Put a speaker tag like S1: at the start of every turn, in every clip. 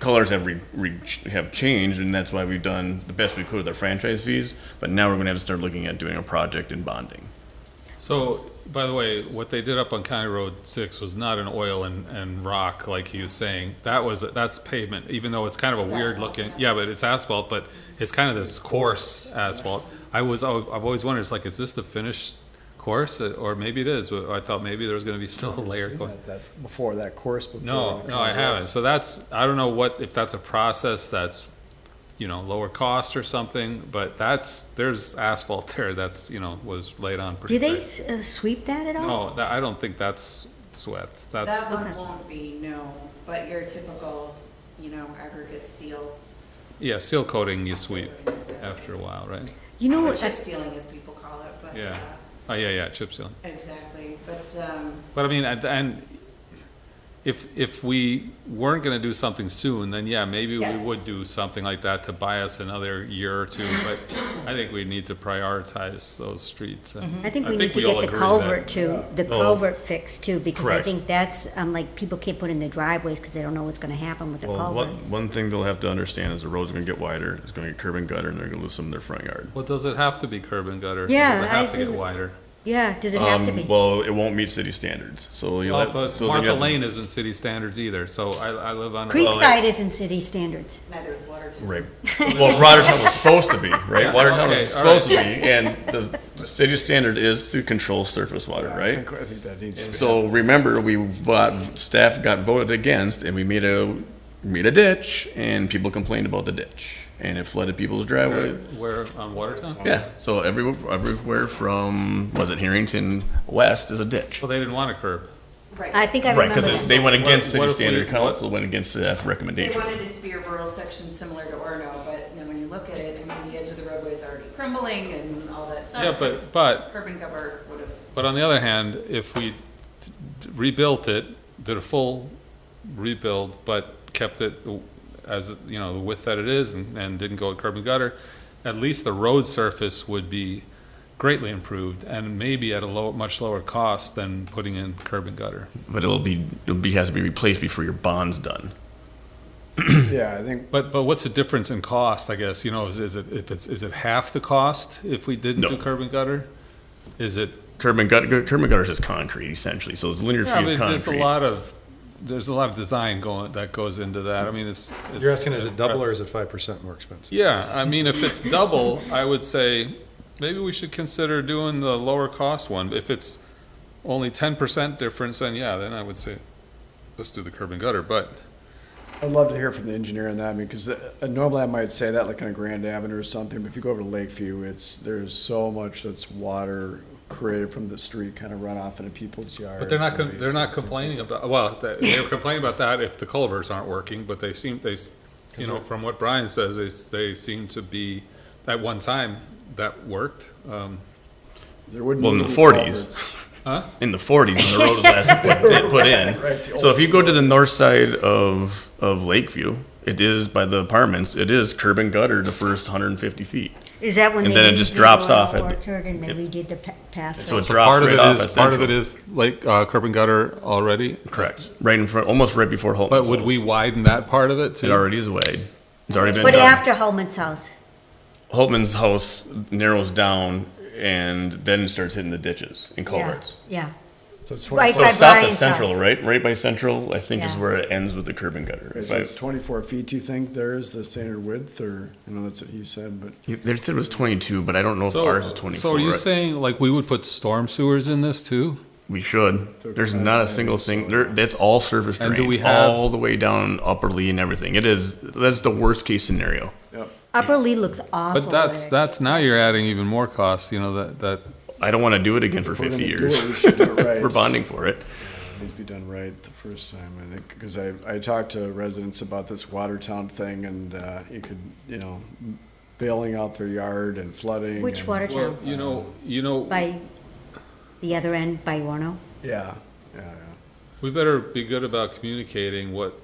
S1: colors have re, re, have changed, and that's why we've done the best we could with our franchise fees. But now we're going to have to start looking at doing a project and bonding.
S2: So, by the way, what they did up on County Road Six was not an oil and, and rock like he was saying. That was, that's pavement, even though it's kind of a weird looking, yeah, but it's asphalt, but it's kind of this coarse asphalt. I was, al- I've always wondered, it's like, is this the finished course? uh, Or maybe it is, but I thought maybe there was gonna be still a layer.
S3: Seen
S2: going-
S3: that- that Before that course before.
S2: No,
S3: it
S2: no, I
S3: comes out.
S2: haven't. So that's, I don't know what, if that's a process that's, you know, lower cost or something, but that's, there's asphalt there that's, you know, was laid on pretty
S4: Do
S2: thick.
S4: they s- uh, sweep that at all?
S2: No, Oh, that, I don't think that's swept. That's,
S5: That one
S4: Okay.
S5: won't be, no, but your typical, you know, aggregate seal.
S2: yeah, seal coating you sweep after a while, right?
S4: You know
S5: Or
S4: what?
S5: chip sealing, as people call it, but,
S2: Yeah.
S5: uh,
S2: Oh, yeah, yeah, chip seal.
S5: exactly, but, um,
S2: But I mean, and- and if, if we weren't gonna do something soon, then yeah, maybe we
S5: Yes.
S2: would do something like that to buy us another year or two, but I think we need to prioritize those streets. and
S4: I think we need to
S2: all
S4: get the
S2: agree that-
S4: culvert to, the
S1: Oh.
S4: culvert fixed too, because I
S2: Correct.
S4: think that's, um, like, people keep putting their driveways because they don't know what's gonna happen with the
S1: Well,
S4: culvert.
S1: one, one thing they'll have to understand is the roads are going to get wider. It's going to get curb and gutter, and they're going to lose some of their front yard.
S2: Well, does it have to be curb and gutter?
S4: Yeah,
S2: Does it
S4: I
S2: have to
S4: agree
S2: get
S4: with-
S2: wider?
S4: Yeah, does it have to
S1: Um,
S4: be?
S1: well, it won't meet city standards, so you'll
S2: Well,
S1: have.
S2: Oh, but
S1: so then you
S2: Martha
S1: have to-
S2: Lane isn't city standards either, so I, I live on.
S4: Creekside isn't city standards.
S5: neither is Watertown.
S1: Right. Well, Watertown was supposed to be, right?
S2: Yeah,
S1: Watertown
S2: okay,
S1: was
S2: all
S1: supposed to be, and the the city standard is to control surface water,
S3: I
S1: right?
S3: think, I think that needs to be.
S1: So remember, we, vo- staff got voted against, and we made a, made a ditch, and people complained about the ditch, and it flooded people's
S2: Where,
S1: driveway.
S2: where, on Watertown?
S1: Yeah, so every, everywhere from, was it Harrington West is a ditch.
S2: Well, they didn't want a curb.
S5: Right.
S4: I think I
S1: Right,
S4: remember
S1: because
S4: that.
S1: they went against
S2: What- what
S1: city
S2: if we-
S1: standard,
S2: what-
S1: council went against staff
S5: They
S1: recommendation.
S5: wanted it to be a rural section similar to Orno, but you know, when you look at it, I mean, the edge of the roadway is already crumbling and all that stuff.
S2: Yeah, but, but
S5: Curb and gutter would have,
S2: But on the other hand, if we t- t- rebuilt it, did a full rebuild, but kept it the- as, you know, the width that it is and, and didn't go with curb and gutter, at least the road surface would be greatly improved and maybe at a low, much lower cost than putting in curb and gutter.
S1: But it'll be, it'll be, has to be replaced before your bond's done.
S3: Yeah, I think,
S2: But, but what's the difference in cost, I guess, you know, is, is it, if it's, is it half the cost if we didn't
S1: No.
S2: do curb and gutter? Is it
S1: Curb and gutter, curb and gutter is just concrete essentially, so it's linear
S2: Yeah,
S1: feet of
S2: but there's a
S1: concrete.
S2: lot of, there's a lot of design going, that goes into that, I mean, it's.
S6: You're
S2: it's-
S6: asking, is it double or is it five percent more expensive?
S2: Yeah, I mean, if it's double, I would say, maybe we should consider doing the lower cost one, if it's only ten percent difference, then yeah, then I would say, let's do the curb and gutter, but.
S3: I'd love to hear from the engineer on that, I mean, because normally I might say that like on a Grand Avenue or something, but if you go over to Lakeview, it's, there's so much that's water created from the street kind of runoff into people's yards.
S2: But they're not,
S3: and
S2: con- they're not
S3: basements and
S2: complaining about, well, th- they were complaining about that if the culverts aren't working, but they seem, they, s- you know, from what Brian says, they, s- they seem to be, at one time, that worked, um,
S3: things. There wouldn't.
S1: Well, in
S3: need
S1: the
S3: to be
S1: 40s.
S3: culverts.
S1: In the forties, when the road was last put, put in.
S3: Right, it's the
S1: So if you
S3: oldest
S1: go to the north side of, of Lakeview, it is by the apartments, it is curb and gutter the first hundred and fifty feet.
S4: Is that when they
S1: And then it
S4: redid
S1: just
S4: the
S1: drops
S4: Royal
S1: off at-
S4: Orchard and they redid the pa- pathway?
S1: So it
S2: So part
S1: drops
S2: of
S1: right
S2: it
S1: off
S2: is,
S1: at
S2: part of it
S1: Central.
S2: is like uh, curb and gutter already,
S1: Correct, right in front, almost right before Holtman's.
S2: but would we
S1: house.
S2: widen that part of it
S1: It
S2: too?
S1: already is wide. It's already been
S4: But
S1: done.
S4: after Holman's house,
S1: Holtman's house narrows down and then it starts hitting the ditches and
S4: yeah,
S1: culverts.
S4: yeah.
S3: So it's 24
S4: Right
S1: So
S4: by
S1: it stops at
S4: Brian's
S1: Central,
S4: house.
S1: right? Right by Central, I think is
S4: Yeah.
S1: where it ends with the curb and gutter.
S3: Okay,
S1: If
S3: so
S1: I-
S3: it's twenty-four feet, do you think there is the standard width, or, I know that's what you said, but
S1: Yeah, They said it was twenty-two, but I don't know if ours is twenty-four.
S2: So are you
S1: I-
S2: saying like we would put storm sewers in this too?
S1: We should. There's not a single thing. There, that's all surface
S2: And
S1: drain,
S2: do we have-
S1: all the way down Upper Lee and everything. It is. That's the worst case scenario.
S4: Upper Lee looks awful.
S2: But that's,
S4: there.
S2: that's, now you're adding even more costs, you know, that, that,
S1: I don't want to do it again for
S3: if we're
S1: 50
S3: gonna do
S1: years.
S3: it, we should do it right.
S1: We're bonding for it.
S3: Needs to be done right the first time, I think, because I, I talked to residents about this Watertown thing, and uh, you could, you know, bailing out their yard and flooding.
S4: Which
S3: and-
S2: well,
S4: Watertown?
S2: you know, you know,
S4: By the other end, by Warno?
S3: Yeah, yeah,
S2: we better be good about communicating what,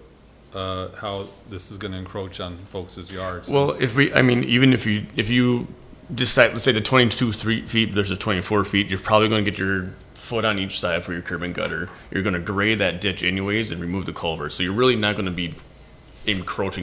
S2: uh, how this is gonna encroach on folks' yards.
S1: Well, if we, I mean, even if you, if you decide, let's say the 22 three feet versus 24 feet, you're probably going to get your foot on each side for your curb and gutter. You're going to grade that ditch anyways and remove the culvert. So you're really not going to be encroaching